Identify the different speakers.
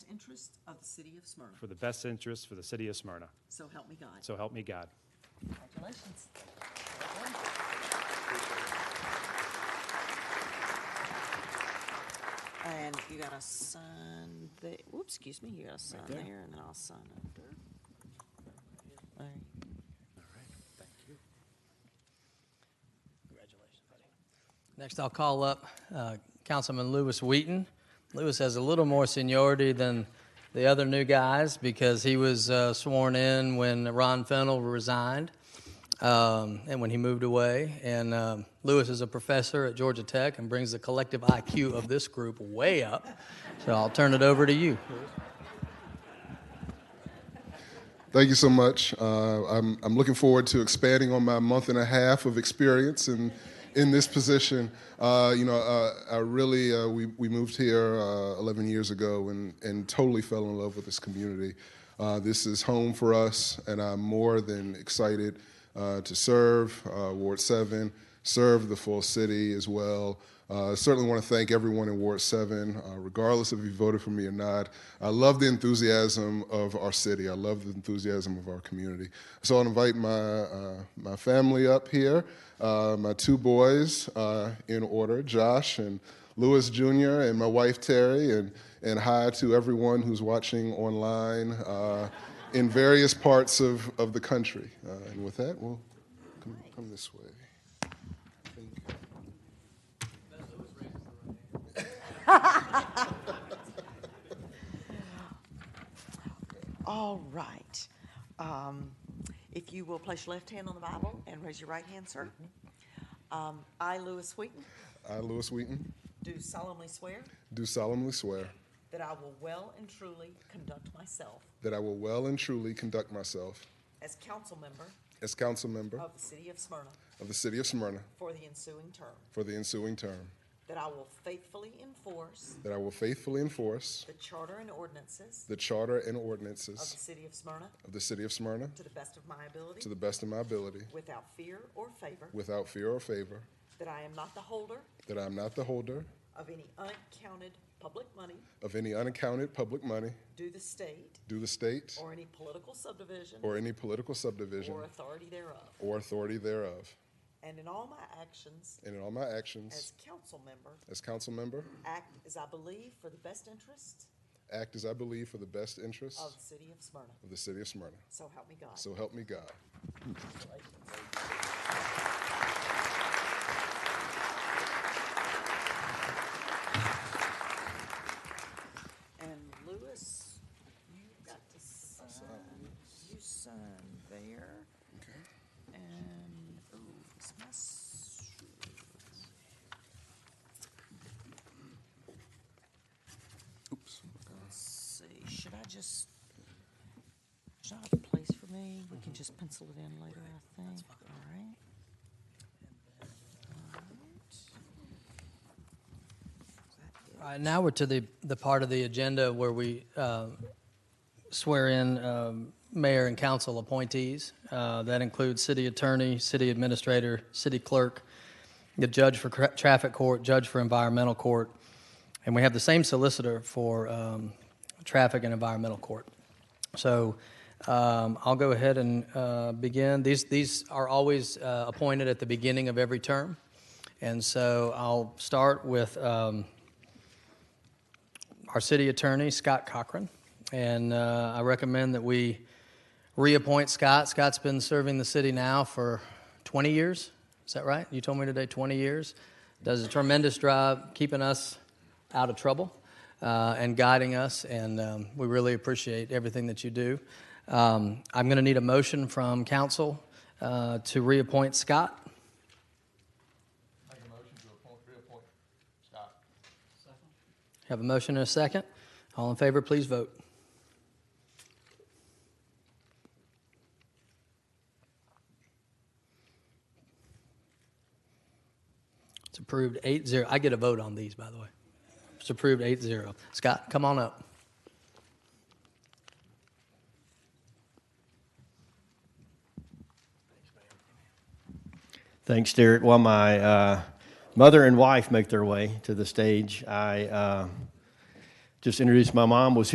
Speaker 1: interest of the city of Smyrna.
Speaker 2: for the best interest for the city of Smyrna.
Speaker 1: So help me God.
Speaker 2: So help me God.
Speaker 1: Congratulations. And you got a sign there, whoops, excuse me, you got a sign
Speaker 2: there.
Speaker 1: there, and then I'll sign under. All right.
Speaker 3: Next, I'll call up uh, Councilman Lewis Wheaton. Lewis has a little more seniority than the other new guys because he was uh, sworn in when Ron Fennell resigned um, and when he moved away. And um, Lewis is a professor at Georgia Tech and brings the collective IQ of this group way up. So I'll turn it over to you.
Speaker 4: Thank you so much. Uh, I'm, I'm looking forward to expanding on my month and a half of experience in, in this position. Uh, you know, uh, I really, uh, we, we moved here uh, 11 years ago and, and totally fell in love with this community. Uh, this is home for us, and I'm more than excited uh, to serve uh, Ward 7, serve the full city as well. Uh, certainly want to thank everyone in Ward 7, uh, regardless if you voted for me or not. I love the enthusiasm of our city. I love the enthusiasm of our community. So I'll invite my, uh, my family up here, uh, my two boys uh, in order, Josh and Lewis Jr., and my wife Terry, and, and hi to everyone who's watching online uh, in various parts of, of the country. Uh, and with that, we'll come, come this way.
Speaker 1: All right. Um, If you will place your left hand on the Bible and raise your right hand, sir. Um, I, Lewis Wheaton,
Speaker 4: I, Lewis Wheaton,
Speaker 1: do solemnly swear
Speaker 4: do solemnly swear
Speaker 1: that I will well and truly conduct myself
Speaker 4: that I will well and truly conduct myself
Speaker 1: as council member
Speaker 4: as council member
Speaker 1: of the city of Smyrna
Speaker 4: of the city of Smyrna
Speaker 1: for the ensuing term,
Speaker 4: for the ensuing term,
Speaker 1: that I will faithfully enforce
Speaker 4: that I will faithfully enforce
Speaker 1: the charter and ordinances
Speaker 4: the charter and
Speaker 1: of the
Speaker 4: ordinances
Speaker 1: city of Smyrna
Speaker 4: of the city of Smyrna
Speaker 1: to the best of my ability,
Speaker 4: to the best of my ability,
Speaker 1: without fear or favor,
Speaker 4: without fear or favor,
Speaker 1: that I am not the holder
Speaker 4: that I am not the holder
Speaker 1: of any unaccounted public money
Speaker 4: of any unaccounted public money
Speaker 1: due the state
Speaker 4: due the state
Speaker 1: or any political subdivision
Speaker 4: or any political subdivision
Speaker 1: or authority thereof,
Speaker 4: or authority thereof,
Speaker 1: and in all my actions
Speaker 4: and in all my
Speaker 1: as
Speaker 4: actions
Speaker 1: council member,
Speaker 4: as council member,
Speaker 1: act as I believe for the best interest
Speaker 4: act as I believe for the best interests
Speaker 1: of the city of Smyrna.
Speaker 4: of the city of Smyrna.
Speaker 1: So help me God.
Speaker 4: So help me God.
Speaker 1: And Lewis, you got to sign, you sign there. And, oh, it's my. s-
Speaker 4: Oops.
Speaker 1: Let's see, should I just, should I have a place for me? We can just pencil it in later, I think, all right? All right.
Speaker 3: All right, now we're to the, the part of the agenda where we uh, swear in um, mayor and council appointees. Uh, That includes city attorney, city administrator, city clerk, the judge for cra- traffic court, judge for environmental court, and we have the same solicitor for um, traffic and environmental court. So um, I'll go ahead and uh, begin. These, these are always uh, appointed at the beginning of every term, and so I'll start with um, our city attorney, Scott Cochran. And uh, I recommend that we reappoint Scott. Scott's been serving the city now for 20 years. Is that right? You told me today 20 years. Does a tremendous job keeping us out of trouble uh, and guiding us. And um, we really appreciate everything that you do. Um, I'm going to need a motion from council uh, to reappoint Scott.
Speaker 5: Make a motion to appoint, reappoint Scott.
Speaker 3: Have a motion and a second. All in favor, please vote. It's approved eight zero. I get a vote on these, by the way. It's approved eight zero. Scott, come on up.
Speaker 6: Thanks, Derek. While my uh, mother and wife make their way to the stage, I uh, just introduced my mom was